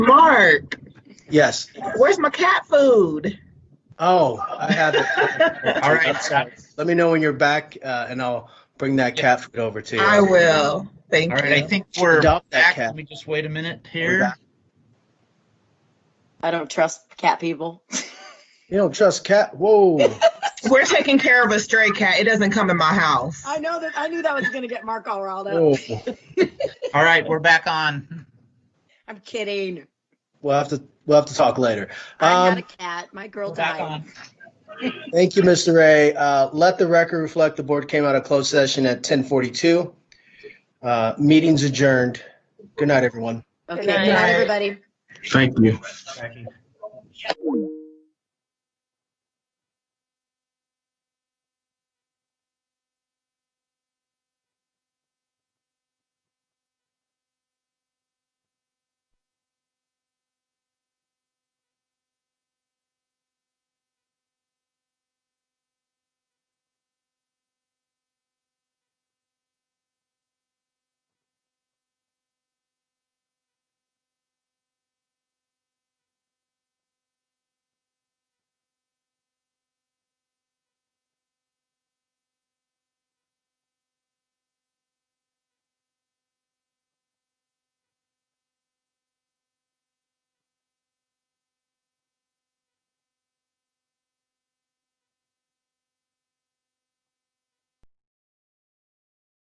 Mark, Yes. where's my cat food? Oh, I have it. All right. Let me know when you're back, uh, and I'll bring that cat food over to you. I will. Thank All you. right, I think we're Adopt that back. cat. Let me just wait a minute We're here. back. I don't trust cat people. You don't trust cat. Whoa. We're taking care of a stray cat. It doesn't come in my house. I know that, I knew that was gonna get Mark all riled up. Oh. Whoa. All right, we're back on. I'm kidding. We'll have to we'll have to talk later. I'm not Um, a cat. My We're girl back died. on. thank you, Mr. Ray. Uh, let the record reflect the board came out of closed session at 10:42. Uh, meetings adjourned. Good night, everyone. Okay, night. good night, everybody. Thank you. Jackie.